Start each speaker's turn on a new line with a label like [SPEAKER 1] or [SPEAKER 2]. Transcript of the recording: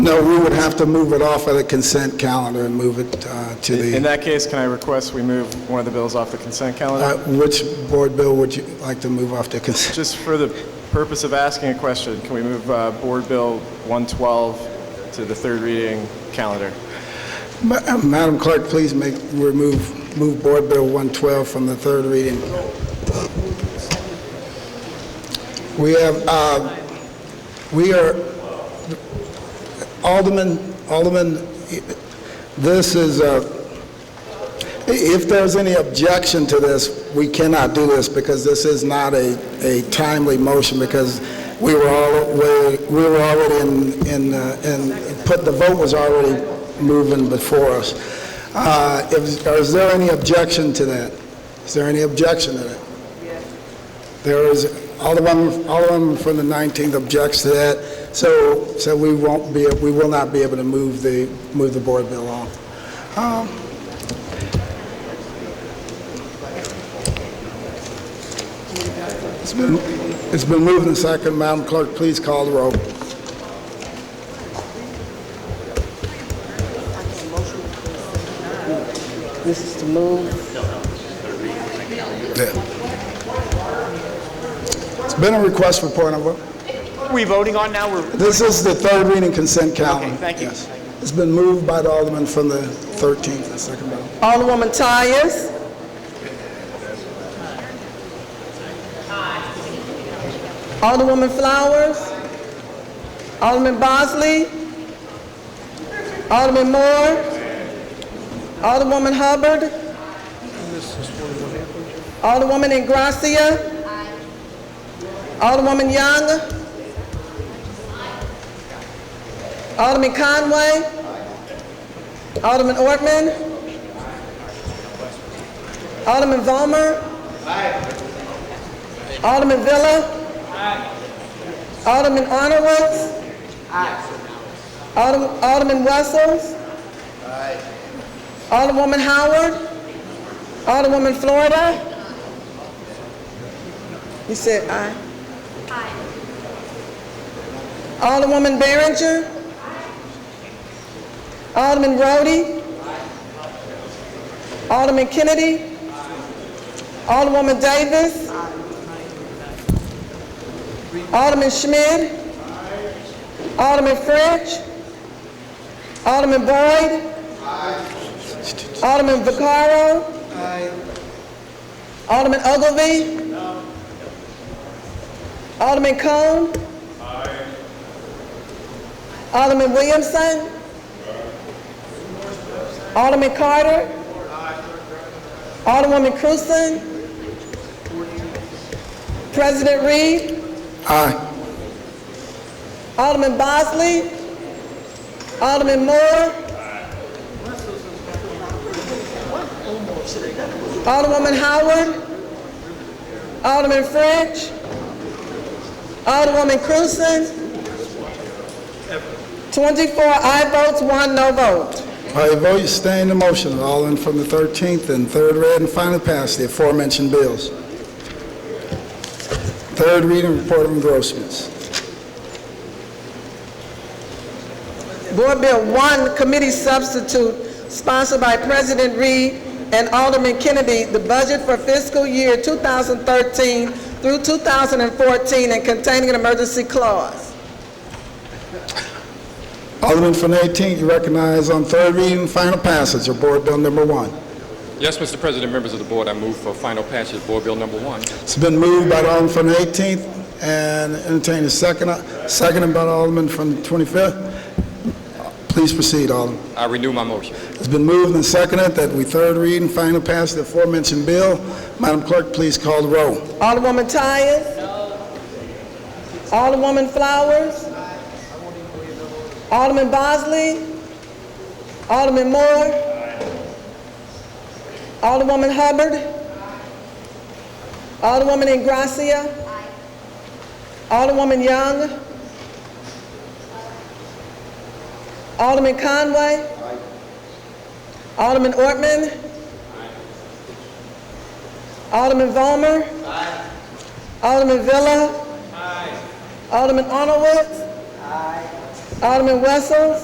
[SPEAKER 1] No, we would have to move it off of the consent calendar and move it uh, to
[SPEAKER 2] In
[SPEAKER 1] the,
[SPEAKER 2] that case, can I request we move one of the bills off the consent
[SPEAKER 1] Uh,
[SPEAKER 2] calendar?
[SPEAKER 1] which board bill would you like to move off the consent?
[SPEAKER 2] Just for the purpose of asking a question, can we move uh, Board Bill 112 to the third reading calendar?
[SPEAKER 1] Ma- uh, Madam Clerk, please make, remove, move Board Bill 112 from the third reading. We have, uh, we are, Alderman, Alderman, this is, uh, i- if there's any objection to this, we cannot do this because this is not a a timely motion because we were all, we we were already in, in, uh, in put, the vote was already moving before us. Uh, Is is there any objection to that? Is there any objection to that? There is, Alderman, Alderman from the 19th objects to that, so, so we won't be, we will not be able to move the, move the board bill on. Um, It's been, it's been moved and second, Madam Clerk, please call the roll.
[SPEAKER 3] This is to move.
[SPEAKER 1] It's been a request for point of, order.
[SPEAKER 4] Are we voting on now? We're,
[SPEAKER 1] this is the third reading consent calendar.
[SPEAKER 4] Okay, thank you.
[SPEAKER 1] Yes. It's been moved by the Alderman from the 13th and second by
[SPEAKER 3] Alderwoman Tyers. Alderwoman Flowers. Alderman Bosley. Alderman Moore. Alderwoman Hubbard. Alderwoman Ingracia. Alderwoman Young. Alderman Conway. Alderman Ortman. Alderman Vollmer. Alderman Villa. Alderman Honorwood. Alderman Alderman Wessels. Alderwoman Howard. Alderwoman Florida. You said aye. Alderwoman Behringer. Alderman Rhodey. Alderman Kennedy. Alderwoman Davis. Alderman Schmidt. Alderman French. Alderman Boyd. Alderman Vaccaro. Alderman Ogilvy. Alderman Cone. Alderman Williamson. Alderman Carter. Alderwoman Cruzen. President Reed.
[SPEAKER 1] Aye.
[SPEAKER 3] Alderman Bosley. Alderman Moore. Alderwoman Howard. Alderman French. Alderwoman Cruzen. 24 aye votes, one no vote.
[SPEAKER 1] By your vote, you sustain the motion, all in from the 13th and third read and final pass the aforementioned bills. Third reading, report of engrossments.
[SPEAKER 3] Board Bill 1, Committee Substitute, sponsored by President Reed and Alderman Kennedy, the budget for fiscal year 2013 through 2014 and containing an emergency clause.
[SPEAKER 1] Alderman from the 18th, you recognize on third reading and final passage of Board Bill Number 1.
[SPEAKER 5] Yes, Mr. President, members of the board, I move for final passage of Board Bill Number 1.
[SPEAKER 1] It's been moved by the Alderman from the 18th and entertained a second, seconded by the Alderman from the 25th. Please proceed, Alderman.
[SPEAKER 5] I renew my motion.
[SPEAKER 1] It's been moved and seconded that we third read and final pass the aforementioned bill. Madam Clerk, please call the roll.
[SPEAKER 3] Alderwoman Tyers? Alderwoman Flowers? Alderman Bosley? Alderman Moore? Alderwoman Hubbard? Alderwoman Ingracia? Alderwoman Young? Alderman Conway? Alderman Ortman? Alderman Vollmer? Alderman Villa. Alderman Honorwood. Alderman Wessels.